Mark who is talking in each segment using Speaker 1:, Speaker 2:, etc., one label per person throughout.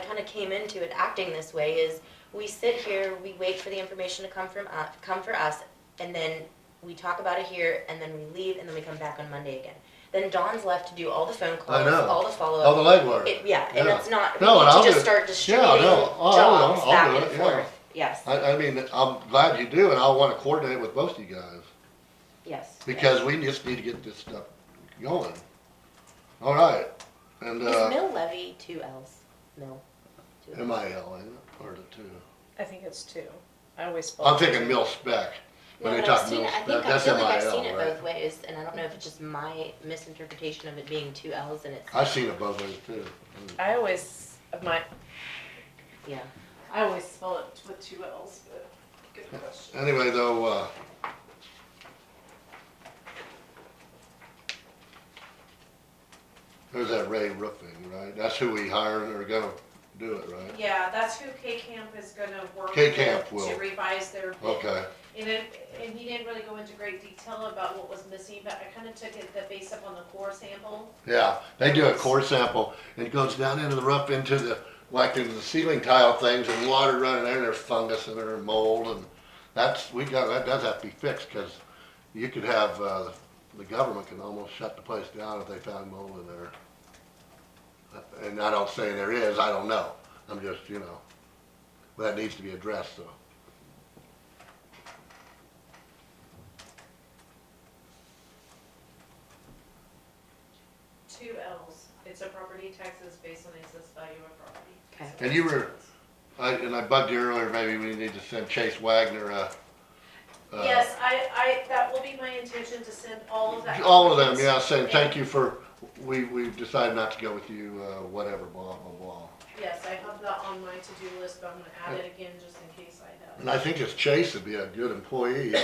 Speaker 1: kinda came into it acting this way is, we sit here, we wait for the information to come from, uh, come for us, and then we talk about it here, and then we leave, and then we come back on Monday again. Then Dawn's left to do all the phone calls,
Speaker 2: know.
Speaker 1: all the follow-up.
Speaker 2: All Oh, the legwork.
Speaker 1: It, yeah, and
Speaker 2: Yeah.
Speaker 1: it's not, we
Speaker 2: No, and
Speaker 1: need
Speaker 2: I'll
Speaker 1: to just
Speaker 2: do-
Speaker 1: start
Speaker 2: yeah,
Speaker 1: distributing
Speaker 2: no, I'll- I'll-
Speaker 1: jobs
Speaker 2: I'll
Speaker 1: back
Speaker 2: do
Speaker 1: and
Speaker 2: it, yeah.
Speaker 1: forth, yes,
Speaker 2: I, I mean, I'm glad you do, and I wanna coordinate with both of you guys,
Speaker 1: yes.
Speaker 2: because we just need to get this stuff going. All right, and,
Speaker 1: Is
Speaker 2: uh,
Speaker 1: mill levy two L's? Mill. two L's.
Speaker 2: M uh, I L, ain't it, or the two?
Speaker 3: I think it's two. I always. spell
Speaker 2: I'm
Speaker 3: it
Speaker 2: thinking
Speaker 3: two.
Speaker 2: mill spec,
Speaker 1: No,
Speaker 2: when they
Speaker 1: but I've
Speaker 2: talk
Speaker 1: seen
Speaker 2: mill
Speaker 1: it, I
Speaker 2: spec,
Speaker 1: think, I
Speaker 2: that's
Speaker 1: feel
Speaker 2: M
Speaker 1: like
Speaker 2: I
Speaker 1: I've seen it
Speaker 2: L,
Speaker 1: both
Speaker 2: right?
Speaker 1: ways, and I don't know if it's just my misinterpretation of it being two L's and it's,
Speaker 2: I've seen it both ways too.
Speaker 3: I always my
Speaker 1: yeah.
Speaker 3: I always spell it with two L's. But good question.
Speaker 2: Anyway, though, uh, there's that Ray Roofing, right? That's who we hired or gonna do it, right?
Speaker 4: Yeah, that's who K Camp is gonna work with
Speaker 2: K-Camp will.
Speaker 4: to revise their bid.
Speaker 2: Okay,
Speaker 4: And it, and he didn't really go into great detail about what was missing, but I kinda took it the base up on the core sample.
Speaker 2: yeah, they do a core sample, and it goes down into the roof, into the, like into the ceiling tile things, and water running there, and there's fungus in there, and mold, and that's, we got, that does have to be fixed, cause you could have, uh, the government can almost shut the place down if they found mold in there. And I don't say there is, I don't know, I'm just, you know, that needs to be addressed, though.
Speaker 4: Two L's. It's a property taxes based on excess value of property.
Speaker 1: Okay.
Speaker 2: And you were- I, and I bugged you earlier, maybe we need to send Chase Wagner a. a-
Speaker 4: Yes, I, I, that will be my intention to send all of that.
Speaker 2: All of them, yeah, saying thank you for, we, we've decided not to go with you, uh, whatever, blah, blah, blah.
Speaker 4: Yes, I have that on my to-do list, but I'm gonna add it again just in case I have.
Speaker 2: And I think it's Chase would be a good employee,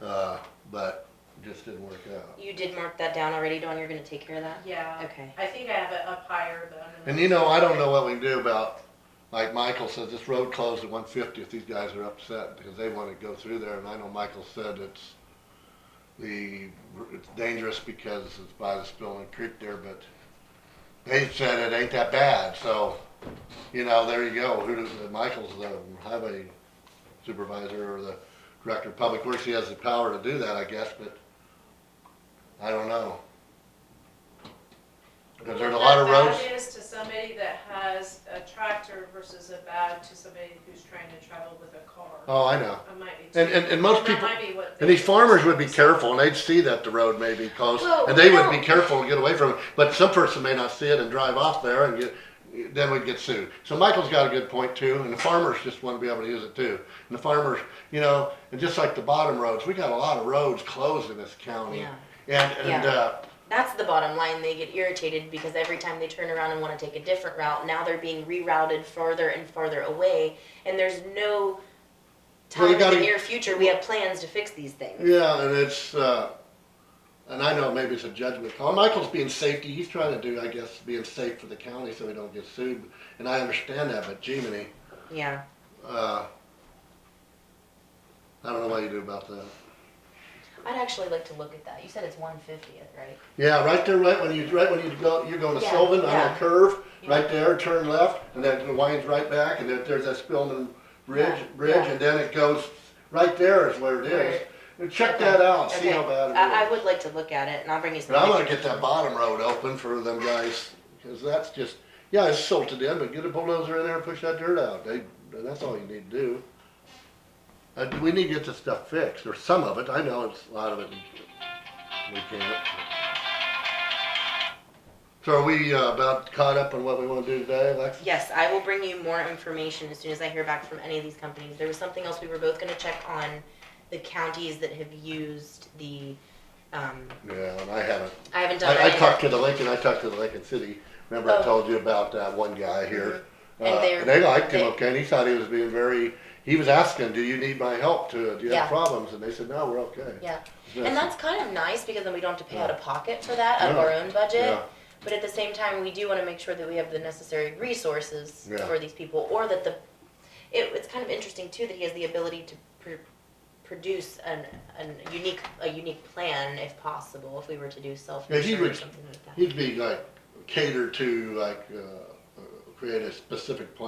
Speaker 2: uh, but just didn't work out.
Speaker 1: You did mark that down already, Dawn, you're gonna take care of that?
Speaker 4: Yeah,
Speaker 1: Okay.
Speaker 4: I think I have it up higher, but I'm gonna.
Speaker 2: And you know, I don't know what we can do about, like Michael says, this road closed at one fiftieth, these guys are upset because they wanna go through there, and I know Michael said it's the, it's dangerous because it's by the spilling creek there, but they said it ain't that bad, so, you know, there you go, who does, Michael's the highway supervisor or the director of public works, he has the power to do that, I guess, but I don't know. Cause there's a lot of roads.
Speaker 4: What that bad is to somebody that has a tractor versus a bad to somebody who's trying to travel with a car.
Speaker 2: Oh, I know.
Speaker 4: I might be.
Speaker 2: And, and, and most
Speaker 4: that
Speaker 2: people,
Speaker 4: might be what
Speaker 2: and these
Speaker 4: they-
Speaker 2: farmers would be careful and they'd see that the road may be closed
Speaker 1: Well,
Speaker 2: and they
Speaker 1: you
Speaker 2: would be
Speaker 1: know-
Speaker 2: careful and get away from it. But some person may not see it and drive off there and get, then we'd get sued. So Michael's got a good point too, and the farmers just want to be able to use it too. And the farmers, you know, and just like the bottom roads, we got a lot of roads closed in this county.
Speaker 1: oh, Yeah.
Speaker 2: And, and,
Speaker 1: Yeah.
Speaker 2: uh,
Speaker 1: That's the bottom line, they get irritated because every time they turn around and wanna take a different route, now they're being rerouted farther and farther away, and there's no
Speaker 2: Well,
Speaker 1: time
Speaker 2: we
Speaker 1: in the
Speaker 2: gotta-
Speaker 1: near future, we have plans to fix these things.
Speaker 2: Yeah, and it's, uh, and I know maybe it's a judgment call. Michael's being safety, he's trying to do, I guess, being safe for the county so he don't get sued. And I understand that, but Jiminy,
Speaker 1: Yeah,
Speaker 2: uh, I don't know what you do about that.
Speaker 1: I'd actually like to look at that, you said it's one fiftieth, right?
Speaker 2: Yeah, right there, right when you, right when you go, you're going to
Speaker 1: Yeah,
Speaker 2: Sylvan on
Speaker 1: yeah.
Speaker 2: that curve,
Speaker 1: Yeah.
Speaker 2: right there, turn left, and then it winds right back, and then there's that Spillman Bridge,
Speaker 1: Yeah,
Speaker 2: bridge,
Speaker 1: yeah.
Speaker 2: and then it goes, right there is where it is. Check that out, see how
Speaker 1: Okay.
Speaker 2: bad it is.
Speaker 1: I, I would like to look at it, and I'll bring you some
Speaker 2: But I'm gonna
Speaker 1: pictures.
Speaker 2: get that bottom road open for them guys, cause that's just, yeah, it's silted in, but get a bulldozer in there and push that dirt out, they, that's all you need to do. Uh, we need to get this stuff fixed, or some of it, I know it's, a lot of it, we can't. So are we uh, about caught up on what we wanna do today, Alexis?
Speaker 1: Yes, I will bring you more information as soon as I hear back from any of these companies. There was something else we were both gonna check on the counties that have used the, um,
Speaker 2: Yeah, and I haven't,
Speaker 1: I haven't done
Speaker 2: I, I
Speaker 1: that yet.
Speaker 2: talked to the Lincoln, I talked to the Lincoln City, remember
Speaker 1: Oh. Mm-hmm.
Speaker 2: I told you about that one guy here? Uh,
Speaker 1: And they're-
Speaker 2: and they liked him,
Speaker 1: they-
Speaker 2: okay, and he thought he was being very, he was asking, do you need my help to, do you
Speaker 1: Yeah.
Speaker 2: have problems? And they said, no, we're okay.
Speaker 1: Yeah,
Speaker 2: Yes.
Speaker 1: and that's kind of nice because then we don't have to pay out of pocket for that, out of
Speaker 2: Yeah.
Speaker 1: our own budget.
Speaker 2: Yeah.
Speaker 1: But at the same time, we do wanna make sure that we have the necessary resources
Speaker 2: Yeah.
Speaker 1: for these people, or that the, it, it's kind of interesting too that he has the ability to pr- produce an, an unique, a unique plan if possible, if we were to do self-insured or
Speaker 2: would-
Speaker 1: something like that.
Speaker 2: He'd be like, catered to, like, uh, uh, create a specific plan